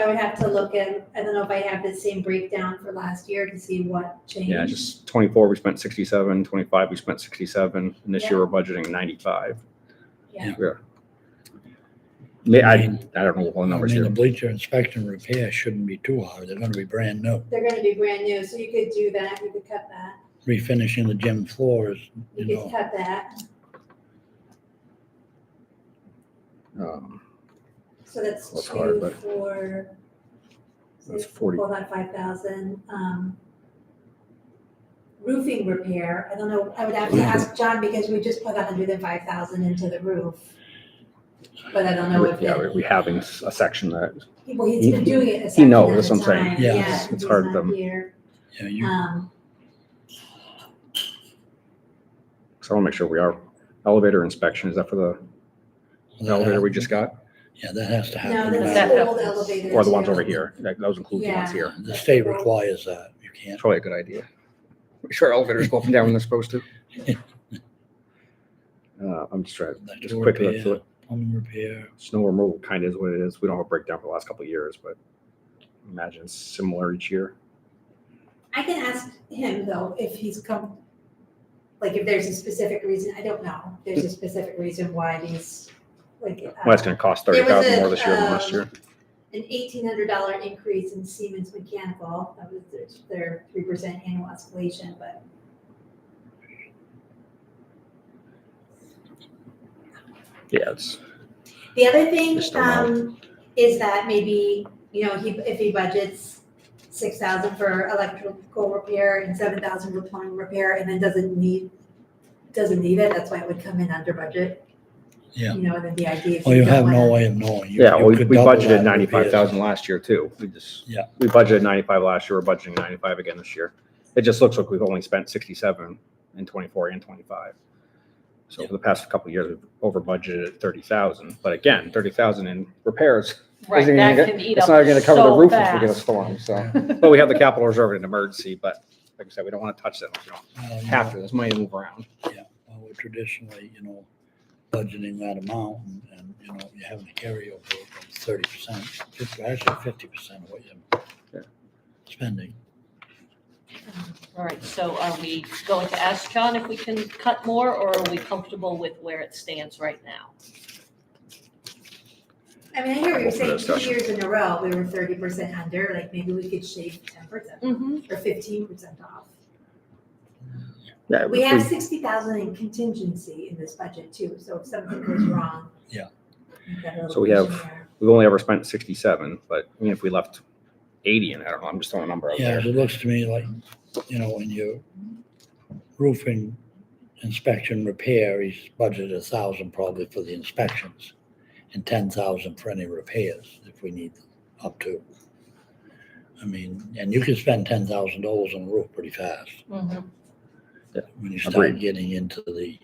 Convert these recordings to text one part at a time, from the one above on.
I would have to look in, I don't know if I have the same breakdown for last year to see what changed. Yeah, just twenty-four, we spent sixty-seven, twenty-five, we spent sixty-seven, and this year we're budgeting ninety-five. Yeah. Yeah. May- I, I don't know the whole numbers I mean, here. the bleacher inspection repair shouldn't be too hard. They're gonna be brand new. They're gonna be brand new, so you could do that, you could cut that, Refinishing the gym floors, you you know. could cut that, Um, so that's That's hard, two but- for. That's 40. Hold on, five thousand, um. Roofing repair, I don't know, I would have to ask John because we just put a hundred and five thousand into the roof. But I don't know if, Yeah, we- it- we having s- a section that, well, he's been He- doing it a second knows, at that's a what I'm saying. time. Yeah. Yeah, It's- it's he's hard to not them. here. Yeah, you, Um, so I want to make sure we are, elevator inspection, is that for the elevator we just got? yeah, that has to no, happen. that's now. the That old happens. elevator. Or the ones too. over here, that, those include the ones Yeah. here. The state requires that. You can't. It's Probably a good idea. Make sure our elevators go up and down when they're supposed to. Uh, I'm just trying, that just door quick look repair, through it. Plumbing repair. snow removal kind of is what it is. We don't have a breakdown for the last couple of years, but I imagine it's similar each year. I can ask him though, if he's come, like if there's a specific reason, I don't know, if there's a specific reason why these, like. uh, Well, it's going to cost There thirty was thousand a, um, more this year than last year. an eighteen hundred dollar increase in Siemens Mechanical, that was their- their three percent annual escalation, but. Yeah, it's The other thing, Just don't know. um, is that maybe, you know, he, if he budgets six thousand for electrical repair and seven thousand for plumbing repair, and then doesn't need, doesn't need it, that's why it would come in under budget. Yeah. You know, and then the idea. is Well, you have don't no wanna- way of knowing. You- yeah. you We, could we double budgeted that ninety-five repairs. thousand last year too. We just Yeah. we budgeted ninety-five last year. We're budgeting ninety-five again this year. It just looks like we've only spent sixty-seven in twenty-four and twenty-five. So for the past couple of years, we've over budgeted at thirty thousand. But again, thirty thousand in repairs Right, Isn't it that gonna- can eat up It's not gonna cover the so roof if we get a fast. storm, so. But we have the capital reserve in an emergency, but like I said, we don't want to touch that. We don't Well, uh, you know, have to. There's money to move around. well, we're Traditionally, you know, budgeting that amount and- and, you know, you're having a carryover of thirty percent, actually fifty percent of what Yeah. you're spending. All right, so are we going to ask John if we can cut more, or are we comfortable with where it stands right now? I mean, I hear what you're Open saying, two discussion. years in a row, we were thirty percent under, like maybe we could shave ten percent Mm-hmm. or fifteen percent off. Yeah, We have sixty thousand in contingency in this budget too, so if something goes wrong. Yeah. we've got a little So we have- cushion there. we've only ever spent sixty-seven, but even if we left eighty in, I don't know, I'm just throwing a number out Yeah, there. 'cause it looks to me like, you know, when you roofing inspection repair, he's budgeted a thousand probably for the inspections and ten thousand for any repairs if we need them, up to. I mean, and you can spend ten thousand dollars on a roof pretty fast when you start Agreed. getting into the,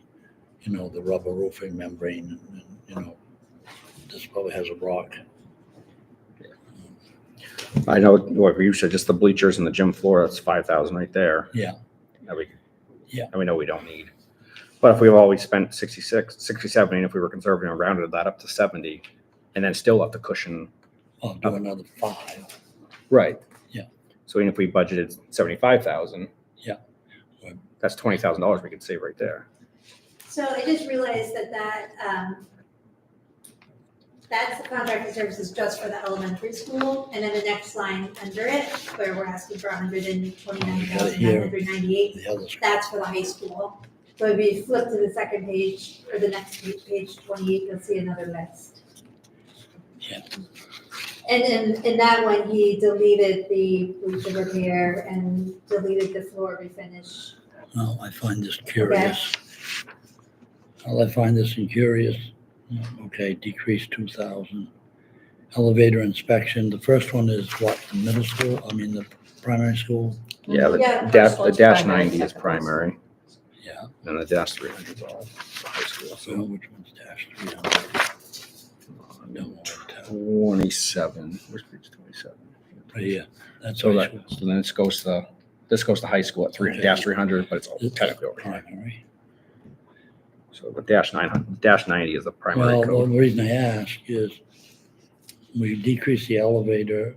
you know, the rubber roofing membrane and, and, you know, this probably has a rock. I know, what you said, just the bleachers and the gym floor, that's five thousand right there. Yeah. That we, Yeah. that we know we don't need. But if we've always spent 66, 67, and if we were conservative and rounded that up to seventy, and then still left the cushion I'll do another five. Right. Yeah. So even if we budgeted seventy-five thousand. Yeah. That's twenty thousand dollars we could save right there. So I just realized that that, um, that's the contracted services just for the elementary school, and then the next line under it, where we're asking for hundred and twenty-nine thousand, nine hundred ninety-eight, The others, that's for the high school. So if you flip to the second page, or the next page, page twenty-eight, you'll see another list. Yeah. And in, in that one, he deleted the bleacher repair and deleted the floor refinish. well, I find this curious. Well, I find this incurious. Okay, decrease two thousand. Elevator inspection, the first one is what, the middle school, I mean, the primary school? Yeah, the Yeah, the dash, first the one's dash primary, ninety is second one's- primary, Yeah, and the dash three hundred is all for high school, so so. which one's dash three hundred? Twenty-seven, where's page twenty-seven? Right here, that's So high that, school. so then this goes to, the- this goes to high school at three, Okay. dash three hundred, but it's all technically over here. Primary. So the dash nine hundred, dash ninety is the primary Well, the code. reason I ask is we decreased the elevator